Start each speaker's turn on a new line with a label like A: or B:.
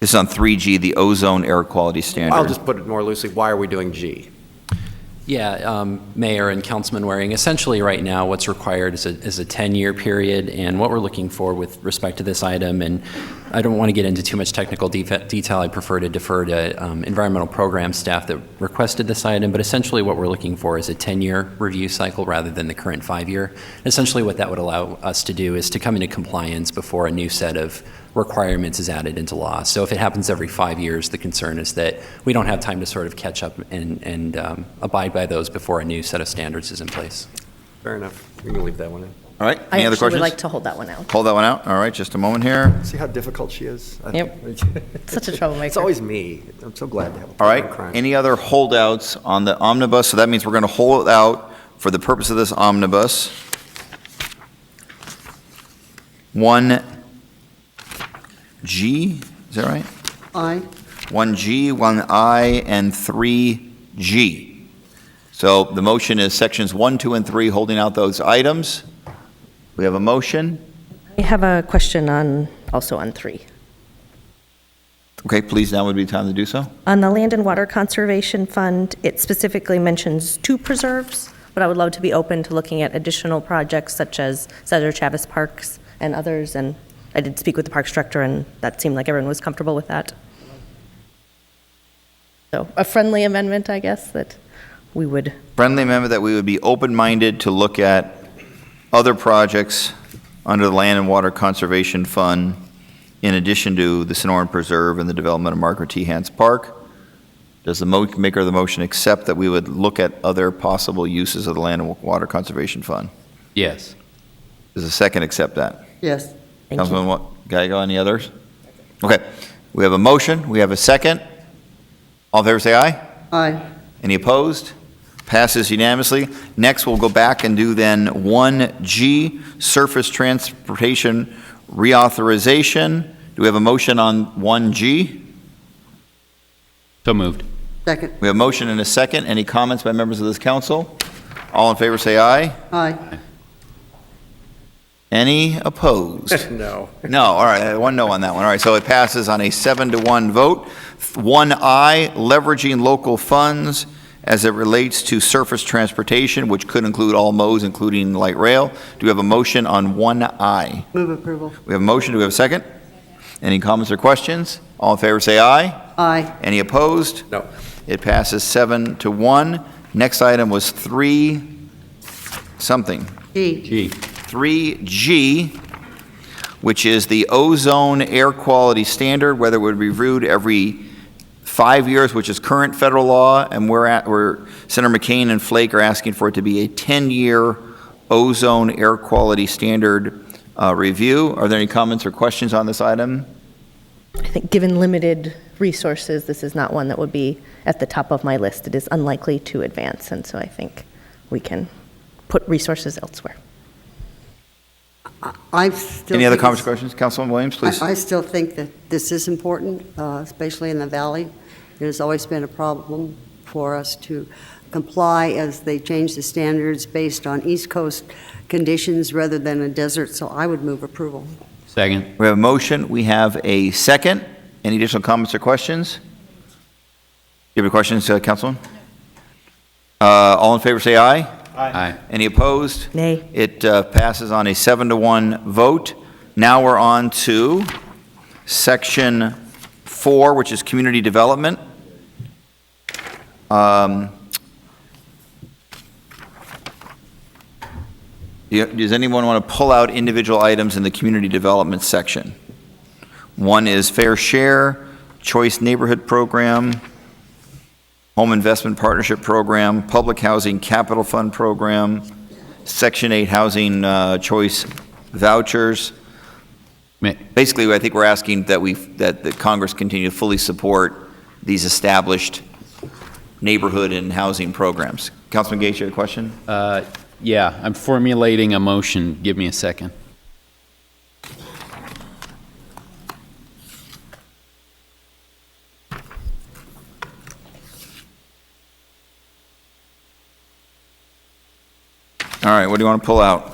A: This is on 3G, the ozone air quality standard.
B: I'll just put it more loosely, why are we doing G?
C: Yeah, um, Mayor and Councilman Waring, essentially, right now, what's required is a, is a 10-year period, and what we're looking for with respect to this item, and I don't want to get into too much technical defe- detail, I prefer to defer to um, environmental program staff that requested this item, but essentially, what we're looking for is a 10-year review cycle rather than the current five-year. Essentially, what that would allow us to do is to come into compliance before a new set of requirements is added into law. So if it happens every five years, the concern is that we don't have time to sort of catch up and, and um, abide by those before a new set of standards is in place.
B: Fair enough, we can leave that one in.
A: All right, any other
D: I actually would like
A: questions?
D: to hold that one out.
A: Hold that one out, all right, just a moment here.
B: See how difficult she is? I-
D: Yep. Such a troublemaker.
B: It's always me. I'm so glad to have a
A: All
B: partner in
A: right,
B: crime.
A: any other holdouts on the omnibus? So that means we're going to hold out for the purpose of this omnibus. One G, is that right?
E: Aye.
A: One G, one I, and three G. So the motion is sections one, two, and three, holding out those items. We have a motion.
D: I have a question on, also on three.
A: Okay, please, now would be time to do so.
D: On the Land and Water Conservation Fund, it specifically mentions two preserves, but I would love to be open to looking at additional projects such as Cesar Chavez Parks and others, and I did speak with the parks director, and that seemed like everyone was comfortable with that. So a friendly amendment, I guess, that we would,
A: friendly amendment that we would be open-minded to look at other projects under the Land and Water Conservation Fund in addition to the Sonoran Preserve and the development of Margaret T. Hans Park. Does the mo- maker of the motion accept that we would look at other possible uses of the Land and Water Conservation Fund?
C: Yes.
A: Does the second accept that?
E: Yes.
D: thank you.
A: Councilman Wa- Gallego, any others? Okay, we have a motion, we have a second. All in favor, say aye.
E: Aye.
A: Any opposed? Passes unanimously. Next, we'll go back and do then 1G, Surface Transportation Reauthorization. Do we have a motion on 1G?
F: So moved.
E: Second.
A: We have a motion and a second. Any comments by members of this council? All in favor, say aye.
E: Aye.
A: Any opposed?
B: No.
A: No, all right, uh, one no on that one. All right, so it passes on a seven to one vote. One I, leveraging local funds as it relates to surface transportation, which could include all modes, including light rail. Do we have a motion on one I?
E: Move approval.
A: We have a motion, do we have a second? Any comments or questions? All in favor, say aye.
E: Aye.
A: Any opposed?
B: No.
A: It passes seven to one. Next item was three something.
E: G.
F: G.
A: 3G, which is the ozone air quality standard, whether it would be reviewed every five years, which is current federal law, and we're at, we're, Senator McCain and Flake are asking for it to be a 10-year ozone air quality standard uh, review. Are there any comments or questions on this item?
D: I think, given limited resources, this is not one that would be at the top of my list. It is unlikely to advance, and so I think we can put resources elsewhere.
E: I still.
A: Any other
E: think
A: comments or
E: it's-
A: questions? Councilman Williams, please.
E: I I still think that this is important, uh, especially in the valley. It has always been a problem for us to comply as they change the standards based on East Coast conditions rather than a desert, so I would move approval.
F: Second.
A: We have a motion, we have a second. Any additional comments or questions? You have any questions, uh, Councilman? Uh, All in favor, say aye.
F: Aye.
A: Any opposed?
D: Nay.
A: It uh, passes on a seven to one vote. Now we're on to section four, which is community development. Um, yeah, Does anyone want to pull out individual items in the community development section? One is fair share, choice neighborhood program, home investment partnership program, public housing capital fund program, Section 8 housing uh, choice vouchers.
F: Ma-
A: Basically, I think we're asking that we, that the Congress continue to fully support these established neighborhood and housing programs. Councilman Gates, you have a question?
F: uh, Yeah, I'm formulating a motion. Give me a second.
A: All right, what do you want to pull out?